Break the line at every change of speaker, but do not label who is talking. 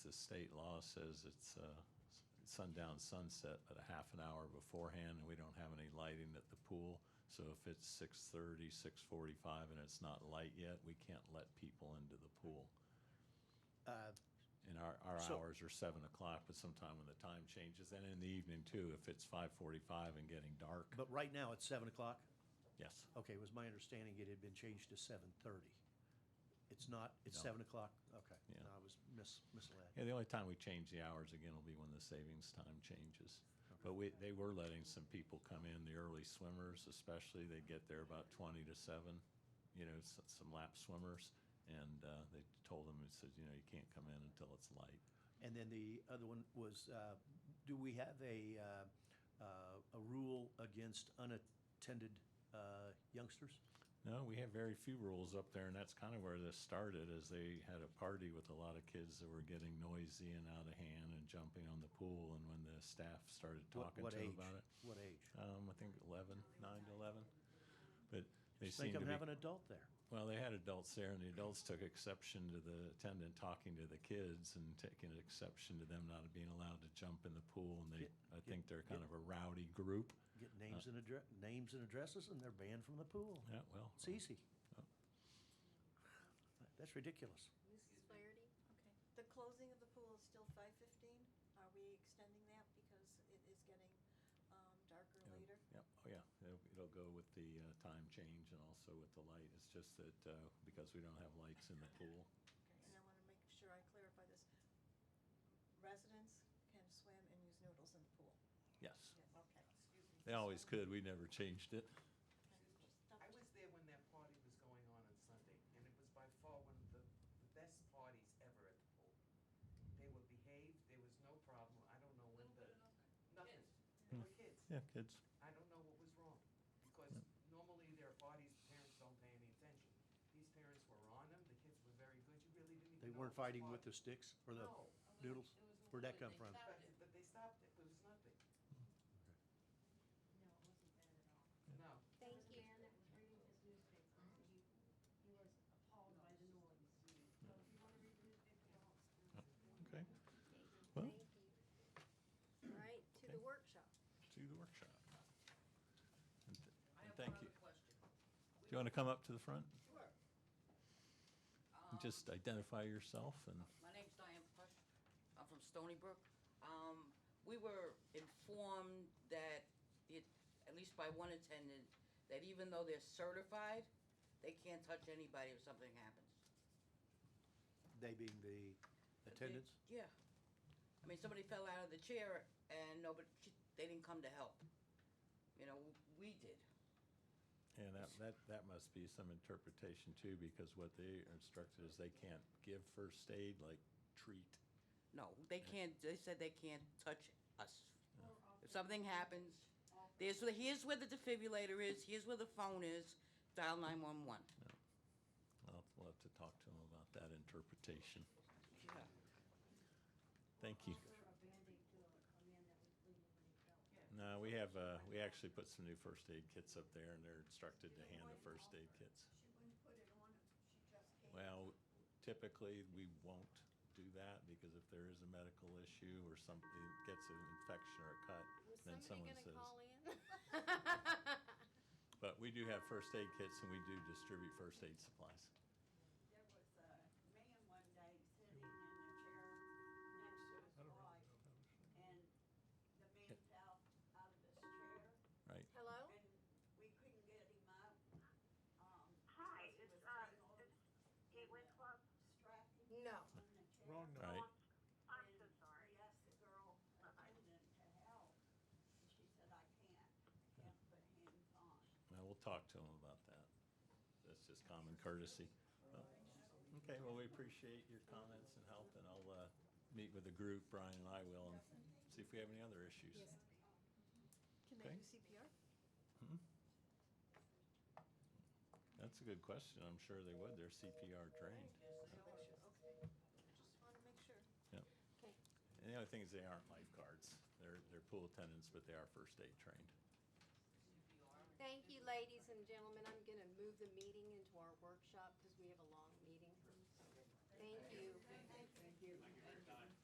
the state law says it's uh, s- sundown sunset, but a half an hour beforehand, and we don't have any lighting at the pool. So if it's 6:30, 6:45, and it's not light yet, we can't let people into the pool.
Uh,
And our, our
So-
hours are seven o'clock, but sometime when the time changes, and in the evening too, if it's 5:45 and getting dark,
But right now, it's seven o'clock?
yes.
Okay, it was my understanding it had been changed to seven thirty. It's not, it's
No.
seven o'clock? Okay.
Yeah.
No, I was mis misled.
Yeah, the only time we change the hours again will be when the savings time changes. But we, they were letting some people come in, the early swimmers especially, they'd get there about twenty to seven, you know, s- some lap swimmers. And, uh, they told them, it says, you know, you can't come in until it's light.
And then the other one was, uh, do we have a, uh, uh, a rule against unattended uh, youngsters?
No, we have very few rules up there, and that's kind of where this started, is they had a party with a lot of kids that were getting noisy and out of hand and jumping on the pool, and when the staff started
What-
talking
what
to them
age?
about it.
What age?
Um, I think eleven, nine to eleven, but they
Just make
seemed to
them
be.
have an adult there.
Well, they had adults there, and the adults took exception to the attendant talking to the kids and taking exception to them not being allowed to jump in the pool. And they,
Get-
I
get-
think they're kind
get-
of a rowdy group.
Get names and address, names and addresses, and they're banned from the pool.
Yeah, well,
It's easy.
Oh.
That's ridiculous.
Mrs. Flaherty? Okay. The closing of the pool is still five fifteen? Are we extending that because it is getting, um, darker
Yeah.
later?
yeah, oh yeah, it'll, it'll go with the uh, time change and also with the light. It's just that uh, because we don't have lights in the pool.
And I wanna make sure I clarify this. Residents can swim and use noodles in the pool.
Yes,
Okay.
they always could. We never changed it.
Stop
I was there when that party was going on on Sunday, and it was by far one of the, the best parties ever at the pool. They were behaved, there was no problem, I don't know when the, nothing, they were kids,
Yeah, kids.
I don't know what was wrong. Because normally there are parties, parents don't pay any attention. These parents were on them, the kids were very good, you really didn't even know.
They weren't fighting with the sticks or the,
No,
Noodles? Where'd that come from?
but, but they stopped, it was nothing,
No, it wasn't bad at all. Thank you. man
no.
that was reading his newspaper, and he, he was appalled by the noise. So if you wanna read the newspaper, don't.
Uh, Okay, Well-
Thank you. All right, to the
Okay.
workshop.
to the workshop. And th-
I
and
have
Thank
one
you.
other question.
Do you want to come up to the front?
Sure.
and
Um,
Just uh, identify yourself and,
My name's Diane Plush. I'm from Stony Brook. Um, we were informed that it, at least by one attendant, that even though they're certified, they can't touch anybody if something happens.
they being the
But they-
attendants?
Yeah. I mean, somebody fell out of the chair and nobody, she- they didn't come to help. You know, we did.
and that, that, that must be some interpretation too, because what they are instructed is they can't give first aid, like treat.
No, they can't, they said they can't touch us.
Or off
If
the-
something happens,
off the-
There's, where- here's where the defibrillator is, here's where the phone is, dial nine one one.
I'll, we'll have to talk to them about that interpretation. Thank you.
Or a Band-Aid to a a man that was bleeding when he fell.
No, we have, uh, we actually put some new first aid kits up there and they're instructed to hand the first aid kits.
She wouldn't put it on him, she just gave
Well, typically, we won't do that because if there is a medical issue or something gets an infection or a cut, then someone says. But we do have first aid kits and we do distribute first aid supplies.
There was a man one day sitting in the chair next to his wife, and the man fell out of his chair,
Hello?
and we couldn't get him up. um,
Hi,
because he
it's,
was
uh,
tangled
it's Gateway Club.
Distracted
No.
in the chair.
All right,
I'm so sorry.
We asked the girl, uh, attendant, to help, and she said, I can't, can't put hands on.
well, we'll talk to them about that. That's just common courtesy. Well, Okay, well, we appreciate your comments and help and I'll, uh, meet with the group, Brian and I will, and see if we have any other issues.
Can
Okay.
they do CPR?
That's a good question. I'm sure they would. They're CPR trained.
Okay. Just wanna make sure.
And the other thing is they aren't lifeguards. They're, they're pool attendants, but they are first aid trained.
Thank you, ladies and gentlemen. I'm going to move the meeting into our workshop because we have a long meeting. Thank you.